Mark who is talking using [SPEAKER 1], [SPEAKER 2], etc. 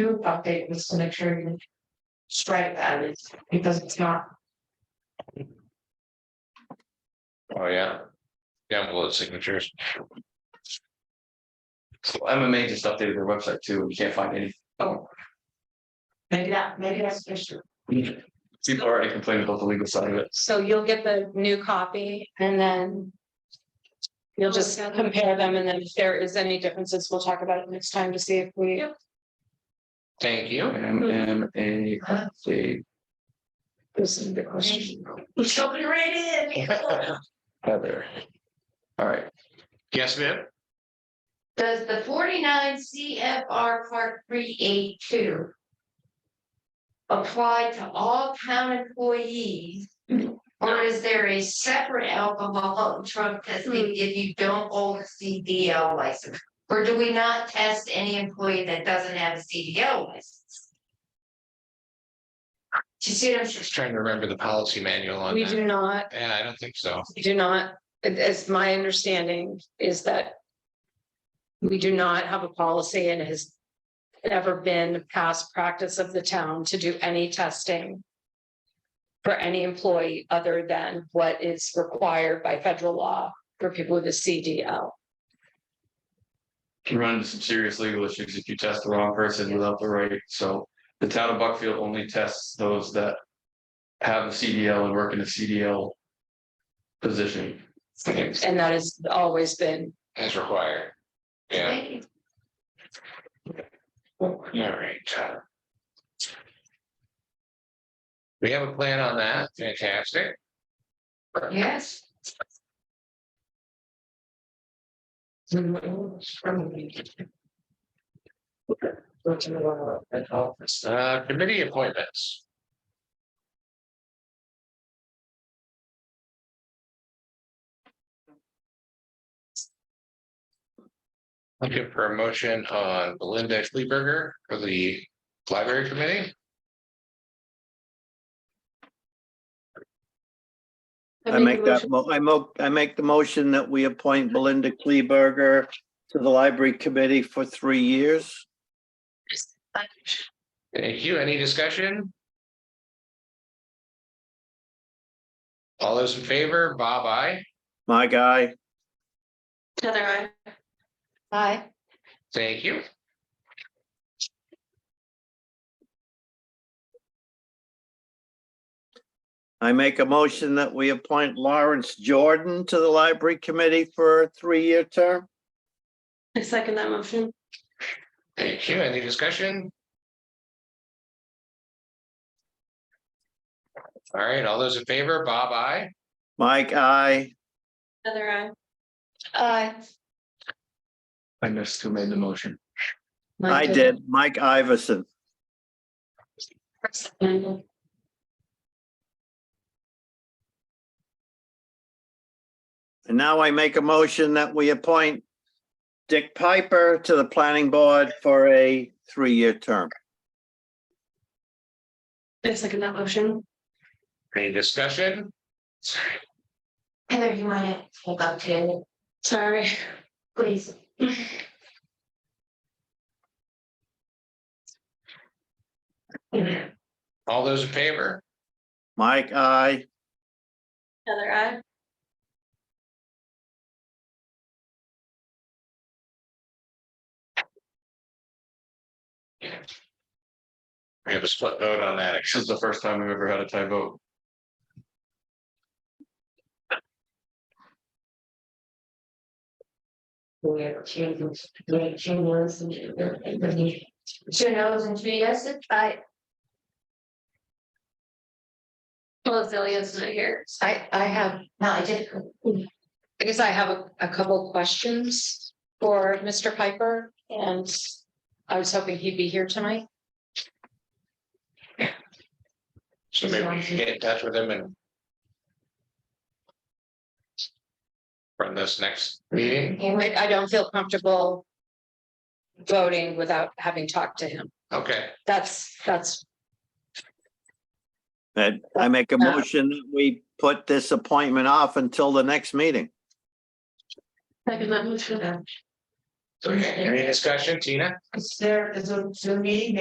[SPEAKER 1] do update was to make sure you strike that is, because it's not,
[SPEAKER 2] Oh, yeah. Download signatures. So MMA just updated their website too, and you can't find any,
[SPEAKER 1] oh. Maybe that, maybe that's an issue.
[SPEAKER 2] people already complaining about the legal side of it.
[SPEAKER 3] So you'll get the new copy and then. You'll just compare them and then if there is any differences, we'll talk about it next time to see if we.
[SPEAKER 2] Thank you. MMA update. This is the question.
[SPEAKER 1] Somebody read it.
[SPEAKER 2] Heather. All right. Yes, ma'am.
[SPEAKER 1] Does the forty-nine CFR part three eight two apply to all town employees? Or is there a separate alcohol drug testing if you don't hold a CDL license? Or do we not test any employee that doesn't have a CDL license? Do you see what I'm saying?
[SPEAKER 2] Just trying to remember the policy manual on
[SPEAKER 3] We
[SPEAKER 2] that.
[SPEAKER 3] do not,
[SPEAKER 2] Yeah, I don't think so.
[SPEAKER 3] we do not, it- it's my understanding is that. We do not have a policy and it has ever been past practice of the town to do any testing. For any employee other than what is required by federal law for people with a CDL.
[SPEAKER 2] can run into some serious legal issues if you test the wrong person without the right, so the town of Buckfield only tests those that. Have a CDL and work in a CDL. Position. As
[SPEAKER 3] And that has always been
[SPEAKER 2] required. Yeah,
[SPEAKER 1] Thank you.
[SPEAKER 2] all right. We have a plan on that, fantastic.
[SPEAKER 1] Yes.
[SPEAKER 2] Uh, committee appointments. Looking for a motion on Belinda Schlieberger for the library committee.
[SPEAKER 4] I make that, mo- I mo, I make the motion that we appoint Belinda Kleberger to the library committee for three years.
[SPEAKER 2] Thank you. Any discussion? All those in favor, Bob, I.
[SPEAKER 4] My guy,
[SPEAKER 3] Heather, I. Hi.
[SPEAKER 2] Thank you.
[SPEAKER 4] I make a motion that we appoint Lawrence Jordan to the library committee for a three-year term.
[SPEAKER 3] I second that motion.
[SPEAKER 2] Thank you. Any discussion? All right, all those in favor, Bob, I.
[SPEAKER 4] Mike, I,
[SPEAKER 3] Heather, I. Aye.
[SPEAKER 2] I missed who made the motion.
[SPEAKER 4] I did, Mike Iverson. And now I make a motion that we appoint Dick Piper to the planning board for a three-year term.
[SPEAKER 3] I second that motion.
[SPEAKER 2] Any discussion?
[SPEAKER 1] Heather, you want to hold up to,
[SPEAKER 3] Sorry.
[SPEAKER 1] please?
[SPEAKER 2] All those in favor?
[SPEAKER 4] Mike, I,
[SPEAKER 3] Heather, I.
[SPEAKER 2] We have a split vote on that. This is the first time we've ever had a tie vote.
[SPEAKER 1] We have changes, we changes. Two no's and three yeses, I,
[SPEAKER 3] Well, Zillion's not here.
[SPEAKER 1] I, I have, no, I did.
[SPEAKER 3] I guess I have a, a couple questions for Mr. Piper and I was hoping he'd be here tonight.
[SPEAKER 2] So maybe we can get in touch with them and. From this next meeting,
[SPEAKER 3] I, I don't feel comfortable voting without having talked to him.
[SPEAKER 2] okay,
[SPEAKER 3] That's, that's,
[SPEAKER 4] and I make a motion that we put this appointment off until the next meeting.
[SPEAKER 2] so any discussion, Tina?
[SPEAKER 1] Is there, is a, is a meeting